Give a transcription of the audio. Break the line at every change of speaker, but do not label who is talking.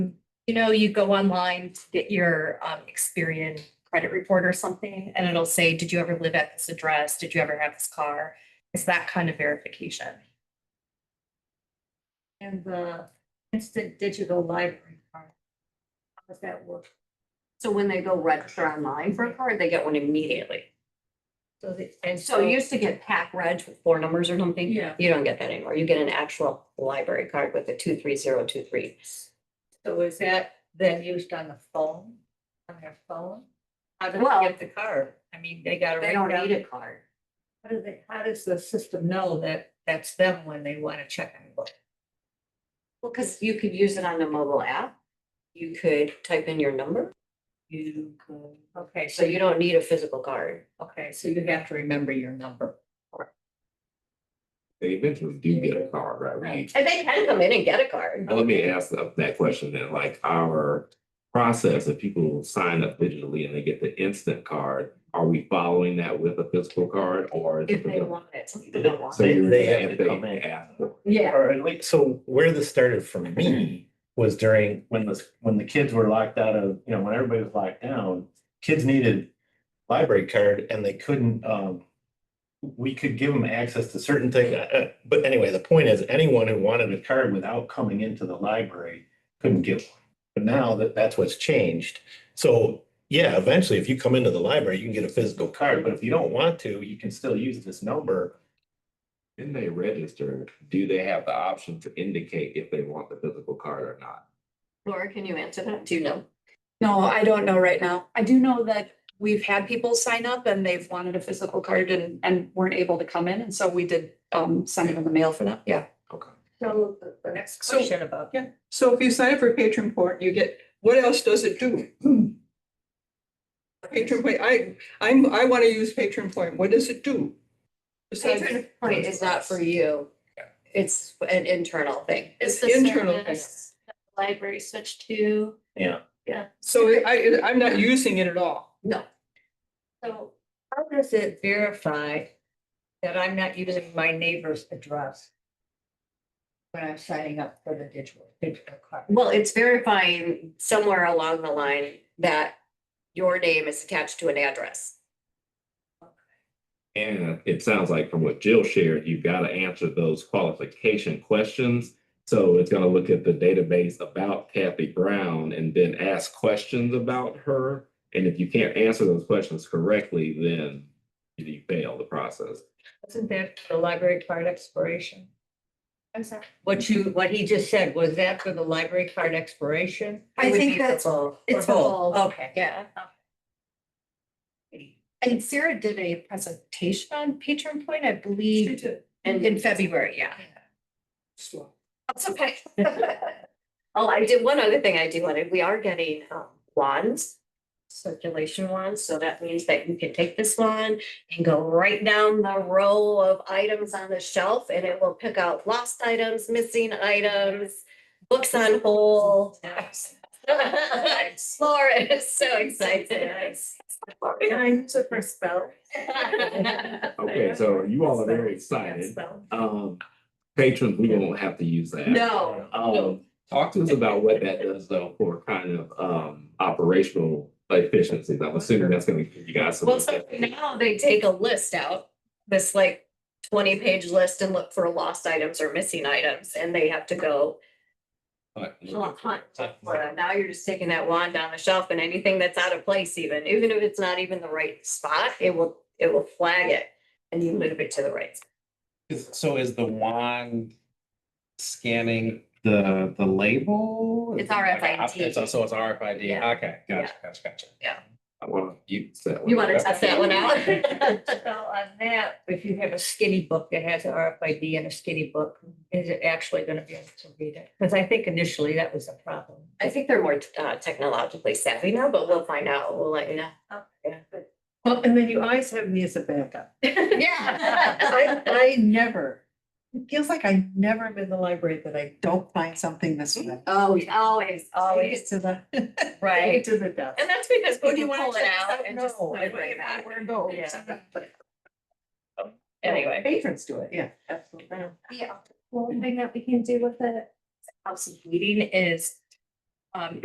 you know, you go online to get your um, Experian credit report or something, and it'll say, did you ever live at this address? Did you ever have this car? It's that kind of verification.
And the instant digital library card. How does that work?
So when they go register online for a card, they get one immediately.
So the, and
So you used to get pack reg with four numbers or something.
Yeah.
You don't get that anymore. You get an actual library card with a two, three, zero, two, three.
So is that then used on the phone, on their phone? How do
Well-
they get the card? I mean, they gotta.
They don't
write down-
need a card.
How do they, how does the system know that that's them when they wanna check on what?
Well, because you could use it on the mobile app. You could type in your number. You could,
Okay,
so you don't need a physical card.
okay, so you have to remember your number.
They eventually do get a card, right? We-
And they can come in and get a card.
Now, Let me ask that that question then, like our process, if people sign up digitally and they get the instant card, are we following that with a physical card or? is it-
If they want it. Some people don't want
So
it.
you're,
They have
if
to come
they
in.
ask for
Yeah.
Or at least, so where this started for me was during when the, when the kids were locked out of, you know, when everybody was locked down, kids needed library card and they couldn't, um, we could give them access to certain things, uh, but anyway, the point is anyone who wanted a card without coming into the library couldn't get one. But now that, that's what's changed. So, yeah, eventually if you come into the library, you can get a physical card, but if you don't want to, you can still use this number.
When they register, do they have the option to indicate if they want the physical card or not?
Laura, can you answer that? Do you know?
No, I don't know right now. I do know that we've had people sign up and they've wanted a physical card and, and weren't able to come in. And so we did, um, send them in the mail for that. Yeah.
So the, the next
So-
question about.
Yeah. So if you sign up for patron point, you get, what else does it do? Patron point, I, I'm, I want to use patron point. What does it do? Besides-
Patron point is not for you. It's an internal thing.
It's
the
internal thing.
service that the Library switched to,
So I, I'm not using it at all.
So how does it verify that I'm not using my neighbor's address? When I'm signing up for the digital, digital card?
Well, it's verifying somewhere along the line that your name is attached to an address.
And it sounds like from what Jill shared, you've got to answer those qualification questions. So it's going to look at the database about Kathy Brown and then ask questions about her. And if you can't answer those questions correctly, then you fail the process.
Isn't that the library card expiration?
I'm sorry,
What you, what he just said, was that for the library card expiration?
It would be for
both.
It's both, okay.
Yeah. And Sarah did a presentation on patron point, I believe, in in February, yeah.
That's okay. Oh, I did, one other thing I do want to, we are getting um, wands, circulation wands, so that means that you can take this one and go right down the row of items on the shelf and it will pick out lost items, missing items, books on hold. Laura is so excited.
I use it for spell.
Okay, so you all are very excited. Um, patrons, we won't have to use that.
No,
Um, talk to us about what that does though for kind of, um, operational efficiencies. I'm assuming that's gonna give you guys some.
Well, so now they take a list out, this like twenty page list and look for lost items or missing items and they have to go. hunt- hunt for them. Now you're just taking that wand down the shelf and anything that's out of place even, even if it's not even the right spot, it will, it will flag it. And you move it to the right. spot.
Is, so is the wand scanning the, the label?
It's
Is it like a-
RFID.
It's also, it's RFID,
Yeah.
okay, gotcha, gotcha, gotcha.
I wanna use that.
You
one.
wanna test that one out?
So on that, if you have a skinny book that has an RFID and a skinny book, is it actually gonna be able to read it? Because I think initially that was a problem.
I think they're more uh technologically savvy now, but we'll find out. We'll let you know.
Well, and then you always have me as a backup. I,
Yeah.
I never, it feels like I never am in the library that I don't find something this way.
Always, always, always.
To the.
Right.
To the desk.
And that's because
Oh, do you
people
wanna
pull it
check this
out
out?
and just.
No,
put
I
it right
don't
back.
Where to go.
Yeah.
But
Anyway.
Patrons do it, yeah, absolutely.
yeah, well, thing that we can do with it.
House meeting is um